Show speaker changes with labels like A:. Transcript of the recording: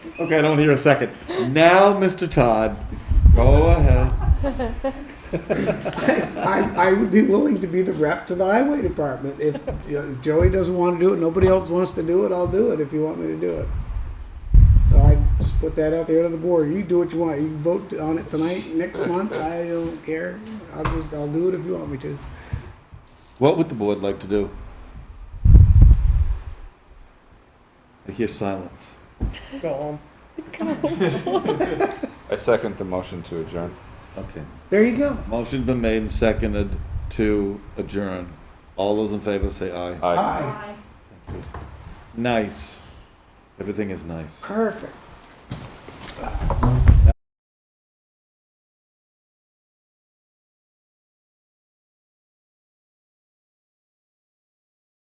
A: Okay, I don't want to hear a second. Now, Mr. Todd, go ahead.
B: I, I would be willing to be the rep to the highway department. If you know, Joey doesn't want to do it, nobody else wants to do it, I'll do it if you want me to do it. So I just put that out there to the board. You do what you want. You can vote on it tonight, next month, I don't care. I'll, just- I'll do it if you want me to.
A: What would the board like to do? I hear silence.
C: Go home.
D: I second the motion to adjourn.
A: Okay.
B: There you go.
A: Motion's been made and seconded to adjourn. All those in favor say aye.
D: Aye.
B: Aye.
A: Nice. Everything is nice.
B: Perfect.